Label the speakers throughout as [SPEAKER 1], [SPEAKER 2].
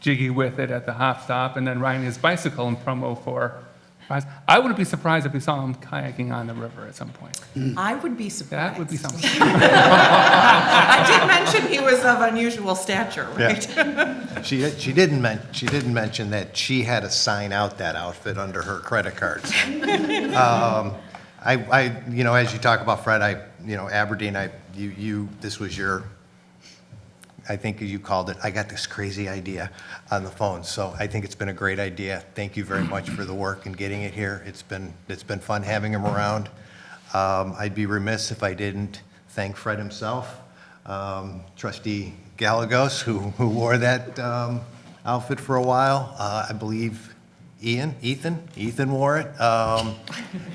[SPEAKER 1] jiggy with it at the hop stop and then riding his bicycle in promo for. I wouldn't be surprised if we saw him kayaking on the river at some point.
[SPEAKER 2] I would be surprised.
[SPEAKER 1] That would be something.
[SPEAKER 2] I did mention he was of unusual stature,
[SPEAKER 3] Yeah.
[SPEAKER 2] right?
[SPEAKER 3] She, she didn't men, she didn't mention that she had to sign out that outfit under her credit cards. Um, I, I, you know, as you talk about Fred, I, you know, Aberdeen, I, you, you, this was your, I think you called it, I got this crazy idea on the phone, so I think it's been a great idea. Thank you very much for the work and getting it here. It's been, it's been fun having him around. Um, I'd be remiss if I didn't thank Fred himself, um, trustee Galagos, who, who wore that um, outfit for a while. Uh, I believe Ian, Ethan, Ethan wore it. Um,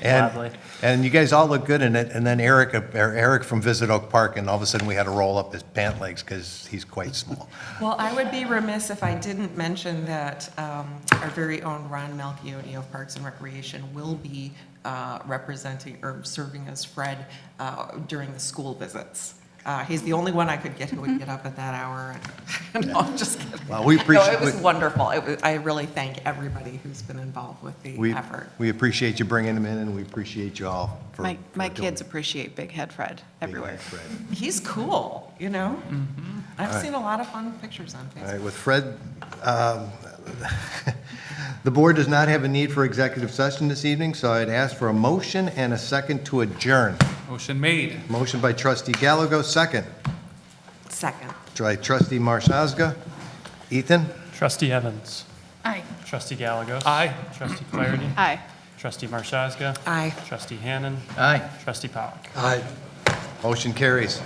[SPEAKER 4] Lovely.
[SPEAKER 3] And, and you guys all look good in it, and then Eric, or Eric from Visit Oak Park, and all of a sudden, we had to roll up his pant legs because he's quite small.
[SPEAKER 2] Well, I would be remiss if I didn't mention that um, our very own Ron Melchiotti of Parks and Recreation will be uh, representing or serving as Fred uh, during the school visits. Uh, He's the only one I could get who would get up at that hour. No, I'm just kidding.
[SPEAKER 3] Mm-hmm. Well, we
[SPEAKER 2] No,
[SPEAKER 3] appreciate-
[SPEAKER 2] it was wonderful. It was- I really thank everybody who's been involved with the
[SPEAKER 3] We,
[SPEAKER 2] effort.
[SPEAKER 3] we appreciate you bringing him in, and we appreciate you all for.
[SPEAKER 5] My,
[SPEAKER 3] for
[SPEAKER 5] my
[SPEAKER 3] doing-
[SPEAKER 5] kids appreciate Big Head Fred
[SPEAKER 3] being
[SPEAKER 5] everywhere.
[SPEAKER 3] here, Fred.
[SPEAKER 2] He's cool, you know?
[SPEAKER 1] Mm-hmm.
[SPEAKER 2] I've seen a lot of fun pictures on
[SPEAKER 3] All
[SPEAKER 2] Facebook.
[SPEAKER 3] right, with Fred, um, the board does not have a need for executive session this evening, so I'd ask for a motion and a second to adjourn.
[SPEAKER 1] Motion made.
[SPEAKER 3] Motion by trustee Galago, second
[SPEAKER 2] Second.
[SPEAKER 3] by trustee Marshaga. Ethan?
[SPEAKER 4] Trustee Evans.
[SPEAKER 5] Aye.
[SPEAKER 4] Trustee Galagos.
[SPEAKER 1] Aye.
[SPEAKER 4] Trustee Clarity.
[SPEAKER 5] Aye.
[SPEAKER 4] Trustee Marshazga.
[SPEAKER 2] Aye.
[SPEAKER 4] Trustee Hannan.
[SPEAKER 3] Aye.
[SPEAKER 4] Trustee Power.
[SPEAKER 3] Aye. Motion carries.